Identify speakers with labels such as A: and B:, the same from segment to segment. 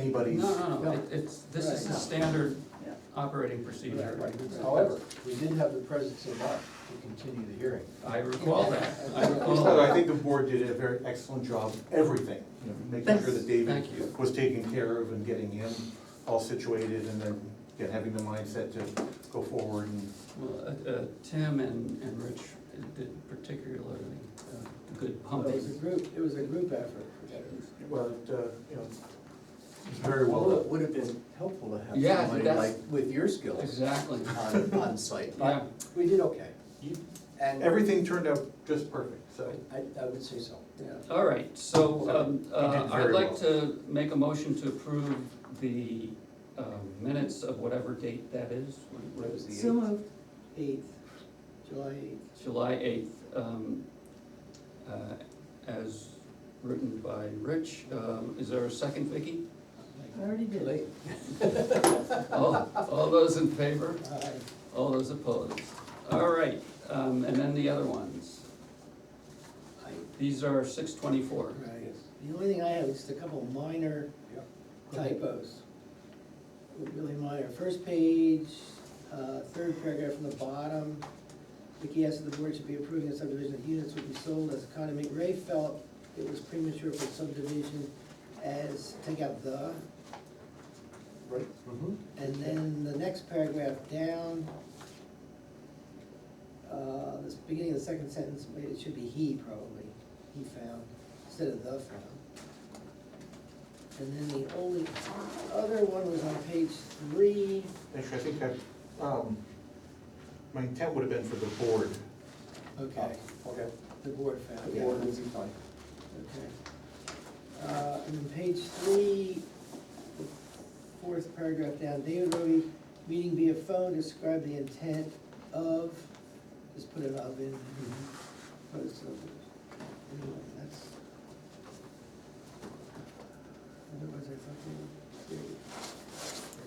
A: anybody's.
B: No, no,
C: No.
B: no, it- it's, this is the
C: Right.
B: standard
D: Yeah.
B: operating procedure.
C: However, we did have the presence of mind to continue the hearing.
B: I recall that, I recall
A: So Oh, I
B: that.
A: think the board did a very excellent job, of everything, you know, making sure that David
B: Thank you.
A: was taken care of and getting him all situated and then, again, having the mindset to go forward and
B: Well, uh, uh, Tim and, and Rich did particularly uh, good
E: Oh,
C: It was a
B: pumping.
C: group, it was a group effort, for sure.
A: Well, it, uh, you know, it's very well
E: Well, it
A: done.
E: would have been helpful to
B: Yeah,
E: have somebody
B: that's-
E: like with your skills
B: Exactly,
E: on, on site.
B: yeah,
C: We did okay.
E: And
A: Everything turned out just perfect, so.
C: I, I would say so.
B: yeah. All right, so, um, uh,
A: did
B: I'd
A: very
B: like
A: well.
B: to make a motion to approve the, um, minutes of whatever date that is, What- what is
D: So moved.
C: Eighth, July eighth.
B: July eighth, um, uh, as written by Rich. Um, is there a second, Vicky?
D: I already did.
C: Late.
B: All, all those in favor?
C: Aye.
B: All those opposed? All right, um, and then the other ones.
C: Aye.
B: These are six twenty-four.
C: Right. The only thing I have is just a couple minor typos. Really minor. First page, uh, third paragraph from the bottom. Vicky asked that the board should be approving the subdivision of units would be sold as economy. Ray felt it was premature for subdivision as, take out the.
A: Right.
C: And then the next paragraph down, uh, this beginning of the second sentence, maybe it should be he probably, he found, instead of the found. And then the only other one was on page three,
A: Actually, I think I, um, my intent would have been for the board.
C: okay,
E: Okay,
C: the board found,
E: the
C: yeah,
E: board was fine.
C: okay. Uh, and then page three, the fourth paragraph down, David Roby, meeting via phone, describe the intent of, just put it of in.
F: Mm-hmm.
C: Opposed to others. Anyway, that's. Otherwise, I thought they were.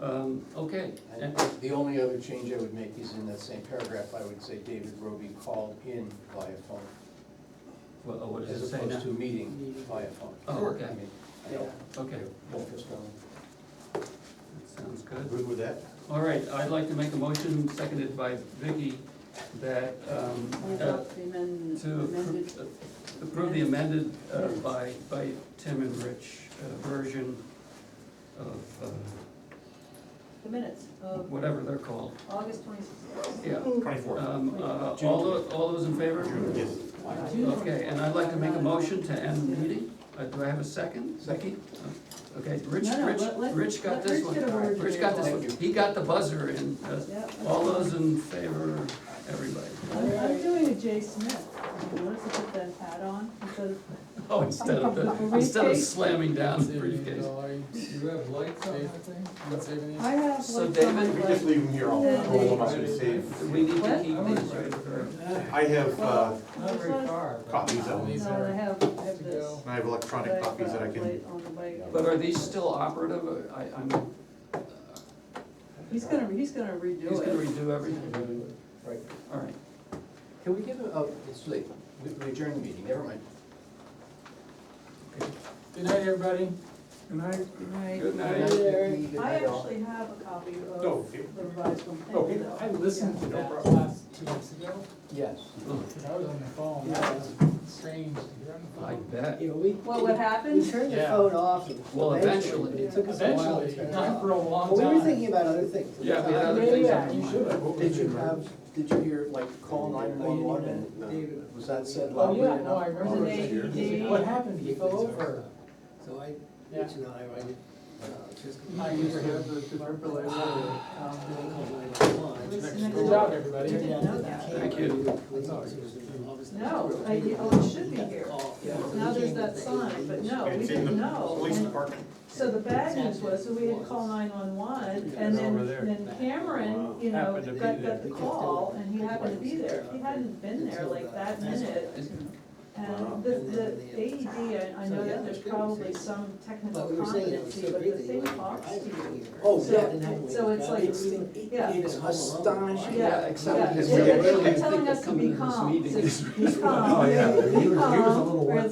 B: Um, okay,
E: And the only other change I would make is in that same paragraph, I would say David Roby called in via phone.
B: well, oh, what does it
E: As
B: say now?
E: opposed to meeting via phone.
B: Oh, okay.
E: I mean, I
C: Yeah,
E: don't,
B: Okay,
E: don't postpone.
B: that sounds good.
A: Good with that?
B: All right, I'd like to make a motion, seconded by Vicky, that, um,
D: What
B: uh,
D: about the amend-
B: to
D: amended?
B: approve uh, approve the amended uh, by, by Tim and Rich uh, version of uh,
D: The minutes of
B: whatever they're called,
D: August twenty-sixth.
B: yeah.
A: Twenty-four.
B: Um, uh, All, tho- all those in favor?
A: Yes.
B: Okay, and I'd like to make a motion to end the meeting. Uh, Do I have a second? Uh,
A: Second.
B: Okay, Rich,
D: No, no,
B: Rich,
D: let- let-
B: Rich got
D: let
B: this
D: Rich
B: one.
D: get a word
B: Rich
D: in
B: got
D: there.
B: this one. He got the buzzer in. Uh,
D: Yep.
B: All those in favor, everybody.
D: I'm I'm doing a Jay Smith, you notice I put that hat on instead of,
B: Oh, instead of, the instead of slamming down the briefcase.
F: You have lights on that thing? That's even
D: I have like.
B: So
D: something
B: David,
A: We
D: like-
A: just leave them here, I'll roll them up and save.
B: We need to
D: What?
B: keep these right here.
A: I have, uh,
F: not very far. but
A: Copies of
F: these
D: No, I
F: are-
D: have, I have this.
A: I have electronic copies that I can,
D: Late on the way.
B: But uh, are these still operative? I, I'm,
D: He's gonna, he's gonna redo it.
B: he's gonna redo everything.
E: Right.
B: All right.
E: Can we give a, oh, it's late, we we adjourn the meeting, never mind.
F: Good night, everybody.
D: Right.
B: Good
E: Good
B: night.
E: night,
C: Eric.
E: Vicky. Good
D: I
E: night, all.
D: actually have a copy
A: No,
D: of the
A: here.
D: revised one. Thank
A: No,
D: you,
A: here.
D: though.
F: I listened to that last two weeks ago,
E: Yes.
F: because I was on the phone, that was strange to hear on the
B: I
F: phone.
B: bet.
C: You know, we.
D: Well, what happened?
C: We turned the
F: Yeah.
C: phone off.
B: Well,
C: but
B: eventually.
C: It took us a while to turn
F: Eventually,
C: it
F: not
C: off.
F: for a long
C: But we were thinking
F: time.
C: about other things. at the
B: Yeah, we had
C: time.
B: other things.
D: Yeah.
B: on
F: You
B: mind.
F: should have.
E: Did you have, did you hear, like, call
C: Oh, you didn't
E: nine-one-one
C: even-
E: and,
C: David-
E: uh, was that said
F: Oh,
E: loudly
F: yeah, no, I
E: enough?
F: remember.
D: Was it
F: it.
D: eight?
F: What happened, he fell over.
C: So I,
F: Yeah.
C: Rich and I, I did, uh, just.
F: I used to have the defibrillator.
C: Phone call
F: um,
C: 911.
F: Good job, everybody.
C: Turned out that
D: that.
C: they came
B: Thank you.
C: when we were
F: That's all.
C: in the office.
D: No, I- oh, it should be here.
C: Oh, yeah.
D: Now there's that sign, but no, we
A: it's in
D: didn't
A: the
D: know.
A: police
D: And
A: department.
D: So the bad news was, that we had to call nine-one-one, and then, then Cameron, you know,
F: Happened to be
D: got,
F: there.
D: got the call, and he happened to be there. If he hadn't been there like that minute, And the,
C: And then
D: the AED, I I know that there's probably some technical
C: But we were saying that was so
D: competency, but
C: great
D: the
C: that
D: thing
C: you
D: costs
C: like.
D: you.
C: Oh,
D: So-
C: yeah. I didn't have one.
D: so it's like-
C: It's-
D: yeah.
C: It is astonishing.
B: Yeah,
D: Yeah,
B: except
D: yeah,
B: it's
D: they- they
B: really-
D: keep telling us to
B: Coming
D: be
B: to this
D: calm,
B: meeting
D: to
B: is
D: be
A: Oh, yeah,
D: calm,
A: he was- he
D: be
A: was a little
D: calm, where
A: worked